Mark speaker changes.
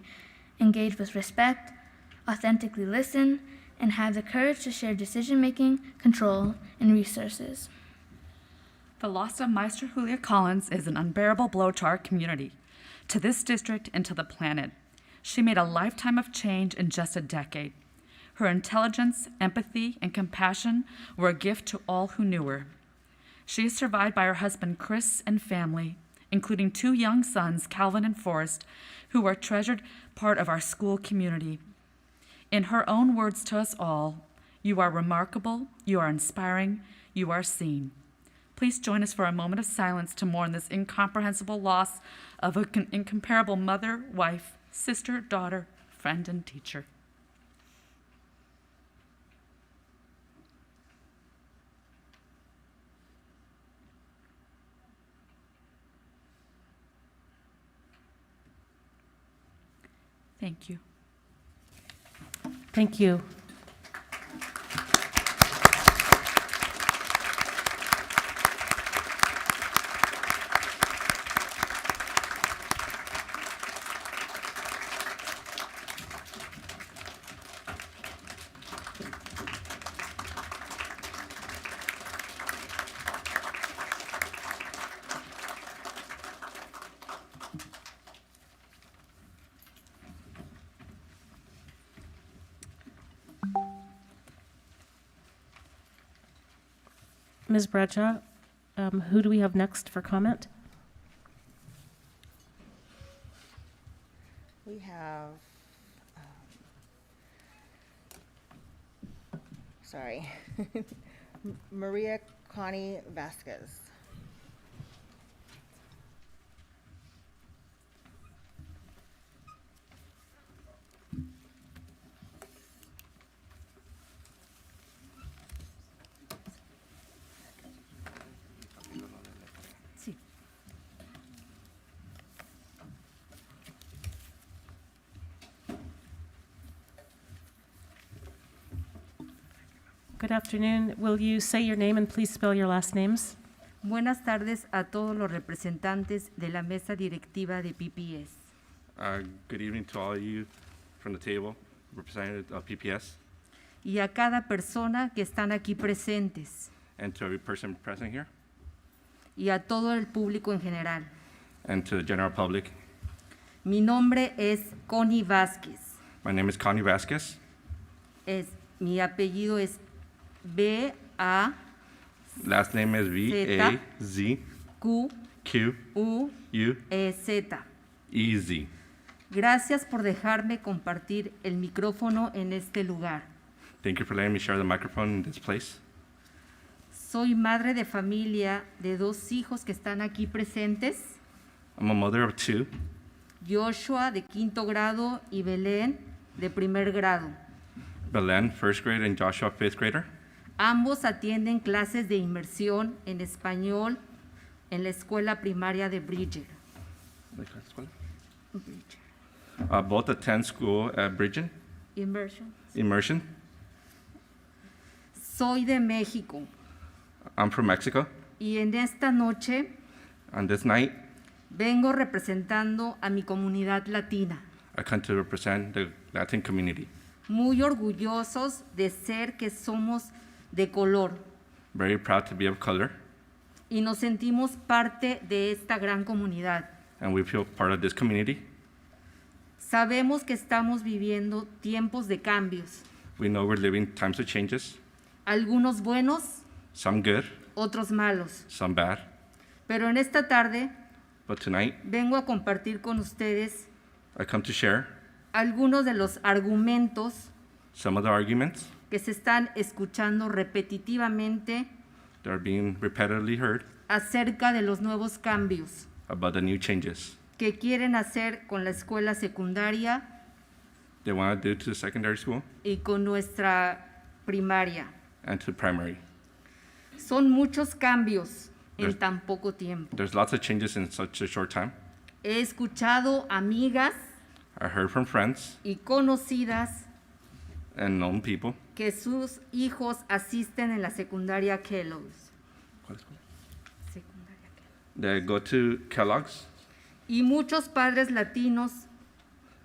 Speaker 1: engage with respect, authentically listen, and have the courage to share decision making, control, and resources.
Speaker 2: The loss of Meister Julia Collins is an unbearable blow to our community, to this district, and to the planet. She made a lifetime of change in just a decade. Her intelligence, empathy, and compassion were a gift to all who knew her. She is survived by her husband Chris and family, including two young sons, Calvin and Forrest, who are a treasured part of our school community. In her own words to us all, you are remarkable, you are inspiring, you are seen. Please join us for a moment of silence to mourn this incomprehensible loss of an incomparable mother, wife, sister, daughter, friend, and teacher. Thank you.
Speaker 3: Thank you. Ms. Bradshaw, um, who do we have next for comment?
Speaker 4: We have, um, sorry, M- Maria Connie Vasquez.
Speaker 3: Good afternoon. Will you say your name and please spell your last names?
Speaker 5: Buenas tardes a todos los representantes de la mesa directiva de PPS.
Speaker 6: Uh, Good evening to all of you from the table, representative of PPS,
Speaker 5: y a cada persona que están aquí presentes
Speaker 6: and to every person present here,
Speaker 5: y a todo el público en general.
Speaker 6: and to the general public.
Speaker 5: Mi nombre es Connie Vázquez.
Speaker 6: My name is Connie Vasquez.
Speaker 5: Es, mi apellido es B A
Speaker 6: Last name is V A Z
Speaker 5: Q
Speaker 6: Q
Speaker 5: U
Speaker 6: U
Speaker 5: E Z.
Speaker 6: E Z.
Speaker 5: Gracias por dejarme compartir el micrófono en este lugar.
Speaker 6: Thank you for letting me share the microphone in this place.
Speaker 5: Soy madre de familia de dos hijos que están aquí presentes,
Speaker 6: I'm a mother of two,
Speaker 5: Joshua de quinto grado y Belén de primer grado.
Speaker 6: Belen, first grade, and Joshua, fifth grader.
Speaker 5: Ambos atienden clases de inmersión en español en la escuela primaria de Bridger.
Speaker 6: Uh, both attend school at Bridgen
Speaker 5: Immersion.
Speaker 6: Immersion.
Speaker 5: Soy de México
Speaker 6: I'm from Mexico.
Speaker 5: y en esta noche
Speaker 6: On this night,
Speaker 5: vengo representando a mi comunidad latina,
Speaker 6: I come to represent the Latin community.
Speaker 5: muy orgullosos de ser que somos de color
Speaker 6: Very proud to be of color,
Speaker 5: y nos sentimos parte de esta gran comunidad.
Speaker 6: and we feel part of this community.
Speaker 5: Sabemos que estamos viviendo tiempos de cambios,
Speaker 6: We know we're living times of changes,
Speaker 5: algunos buenos,
Speaker 6: some good,
Speaker 5: otros malos,
Speaker 6: some bad.
Speaker 5: pero en esta tarde
Speaker 6: But tonight,
Speaker 5: vengo a compartir con ustedes
Speaker 6: I come to share
Speaker 5: algunos de los argumentos
Speaker 6: some of the arguments
Speaker 5: que se están escuchando repetitivamente
Speaker 6: that are being repetitively heard
Speaker 5: acerca de los nuevos cambios
Speaker 6: about the new changes
Speaker 5: que quieren hacer con la escuela secundaria
Speaker 6: they want to do to the secondary school
Speaker 5: y con nuestra primaria.
Speaker 6: and to primary.
Speaker 5: Son muchos cambios en tan poco tiempo.
Speaker 6: There's lots of changes in such a short time.
Speaker 5: He escuchado amigas
Speaker 6: I heard from friends
Speaker 5: y conocidas
Speaker 6: and known people
Speaker 5: que sus hijos asisten en la secundaria Kellogg's. Secundaria Kellogg's.
Speaker 6: that go to Kellogg's
Speaker 5: Y muchos padres latinos